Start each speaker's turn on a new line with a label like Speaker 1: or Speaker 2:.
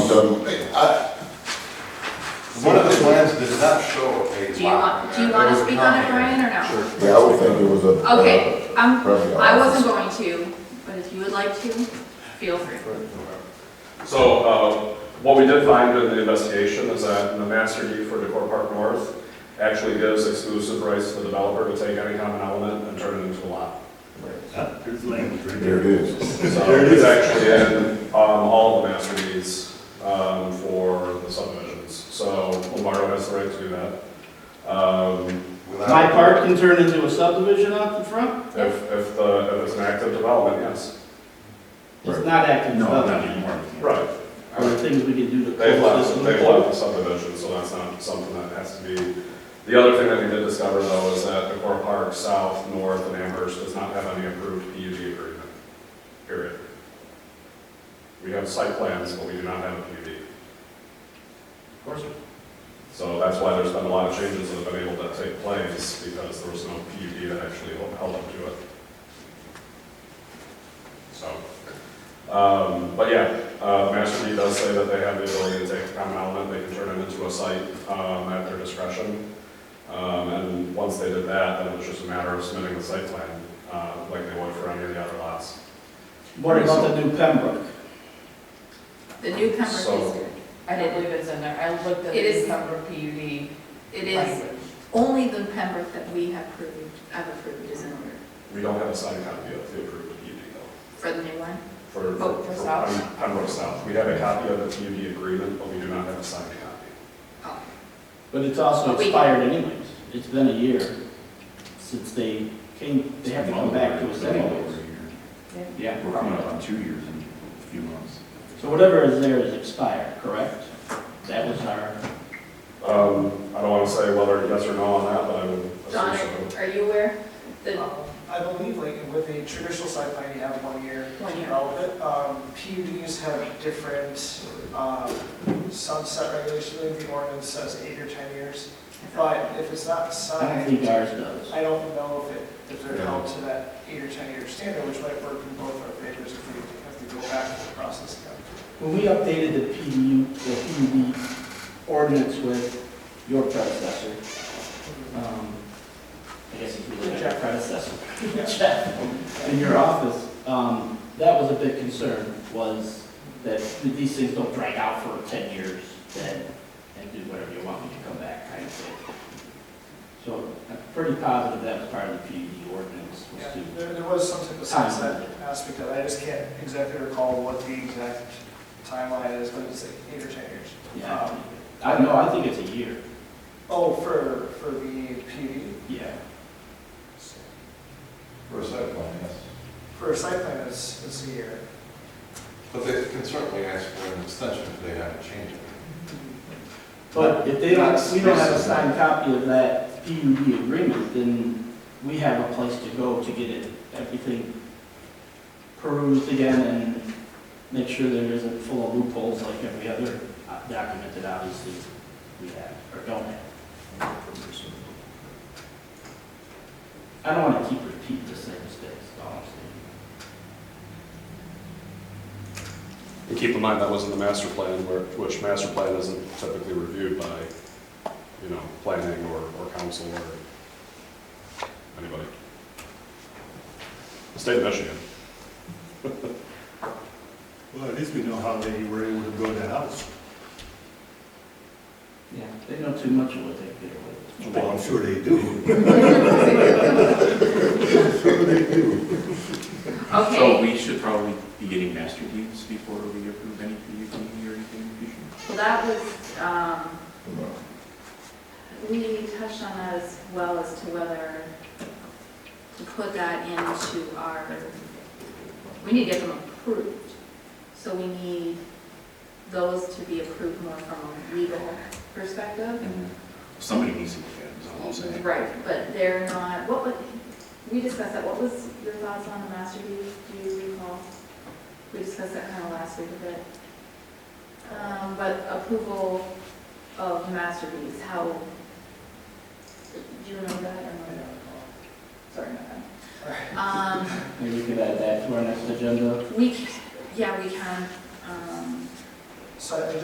Speaker 1: done, I,
Speaker 2: One of the plans does not show a
Speaker 3: Do you want, do you want to speak on it, Brian, or no?
Speaker 1: yeah, I would think it was a. uh,
Speaker 3: Okay, um,
Speaker 1: Probably
Speaker 3: I wasn't
Speaker 1: office.
Speaker 3: going to, but if you would like to, feel free.
Speaker 4: So uh, what we did find in the investigation is that the master deed for Decor Park North actually gives exclusive rights to the developer to take any common element and turn it into a lot.
Speaker 5: There's language right
Speaker 1: There it is.
Speaker 4: So it's actually in um, all the master deeds um, for the subdivisions. So Lombardo has the right to do that. Um,
Speaker 6: My park can turn into a subdivision out in front?
Speaker 4: If, if the, if it's an active development, yes.
Speaker 6: It's not active
Speaker 5: No, not
Speaker 6: development.
Speaker 5: anymore.
Speaker 4: Right.
Speaker 6: Are there things we can do to
Speaker 4: They've
Speaker 6: close
Speaker 4: left,
Speaker 6: this
Speaker 4: they've
Speaker 6: loophole?
Speaker 4: left the subdivision, so that's not something that has to be. The other thing that we did discover though is that the core park, south, north, and Amherst does not have any approved PUD agreement, period. We have site plans, but we do not have a PUD.
Speaker 6: Of course.
Speaker 4: So that's why there's been a lot of changes that have been able to take place, because there was no PUD that actually held up to it. So, um, but yeah, uh, Master D does say that they have the ability to take a common element, they can turn it into a site, um, at their discretion. Um, and once they did that, then it was just a matter of submitting the site plan, uh, like they would for any of the other lots.
Speaker 6: What about the new Pembroke?
Speaker 3: The new Pembroke is
Speaker 4: So-
Speaker 3: good.
Speaker 7: I don't believe it's in there. I looked at
Speaker 3: It is-
Speaker 7: the number PUD
Speaker 3: It is,
Speaker 7: language.
Speaker 3: only the Pembroke that we have approved, I've approved is in order
Speaker 4: We don't have a signed copy of the approved PUD though,
Speaker 3: for the new one.
Speaker 4: for,
Speaker 3: Oh,
Speaker 4: for
Speaker 3: for
Speaker 4: for
Speaker 3: South?
Speaker 4: Pem- Pembroke South. We have a copy of the PUD agreement, but we do not have a signed copy.
Speaker 3: Oh,
Speaker 6: But it's also
Speaker 3: But we-
Speaker 6: expired anyways. It's been a year since they came, they have to come back to us anyways. Yeah.
Speaker 5: We're coming up on two years in a few months.
Speaker 6: So whatever is there is expired, correct? That was our,
Speaker 4: Um, I don't want to say whether yes or no on that, but I would
Speaker 3: John,
Speaker 4: assume so.
Speaker 3: are you aware? The,
Speaker 7: Oh.
Speaker 8: I believe like with a traditional site plan, you have one year
Speaker 3: One
Speaker 8: to
Speaker 3: year.
Speaker 8: develop it. Um, PUDs have different, um, sunset regulations, I believe the ordinance says eight or 10 years. But if it's not
Speaker 6: I don't think
Speaker 8: signed,
Speaker 6: ours does.
Speaker 8: I don't know if it, if they're held to that eight or 10-year standard, which might work in both our favors if we have to go back to the process again.
Speaker 6: When we updated the PDU, the PUD ordinance with your predecessor, um, I guess if you look at your predecessor, Jeff, in your office, um, that was a big concern, was that these things don't drag out for ten years, then, and do whatever you want when you come back, kind of thing. So I'm pretty positive that was part of the PUD ordinance, was
Speaker 8: Yeah,
Speaker 6: to
Speaker 8: there, there was some type of sunset aspect of it. I just can't exactly recall what the exact timeline is, but it's like eight or 10 years.
Speaker 6: Yeah,
Speaker 8: Um,
Speaker 6: I know, I think it's a year,
Speaker 8: Oh, for, for the PUD?
Speaker 6: yeah.
Speaker 2: For a site plan, yes.
Speaker 8: For a site plan, it's, it's a year.
Speaker 2: But they can certainly ask for an extension if they haven't changed it.
Speaker 6: But if they don't, we don't have a signed copy of that PUD agreement, then we have a place to go to get it, everything perused again and make sure there isn't full of loopholes like every other uh, document that obviously we have or don't have. I don't want to keep repeating the same mistakes, honestly.
Speaker 4: And keep in mind, that was in the master plan, where, which master plan isn't typically reviewed by, you know, planning or, or council or anybody. The State of Michigan.
Speaker 5: Well, at least we know how they were able to build that house.
Speaker 6: Yeah, they know too much of what they get away with.
Speaker 5: Well, I'm sure they do.
Speaker 3: okay.
Speaker 9: So we should probably be getting master deeds before we approve any PUD or anything in the future?
Speaker 3: Well, that was, um, we touched on that as well as to whether to put that into our, we need to get them approved. So we need those to be approved more from a legal perspective.
Speaker 9: Somebody needs to look at it, is all I'm saying.
Speaker 3: Right, but they're not, what was, we discussed that, what was your thoughts on the master deed, do you recall? We discussed that kind of last week a bit. Um, but approval of master deeds, how, do you remember that or not? Sorry, not that. Um,
Speaker 6: Maybe we could add that to our next agenda.
Speaker 3: we, c- yeah, we can, um.
Speaker 8: So I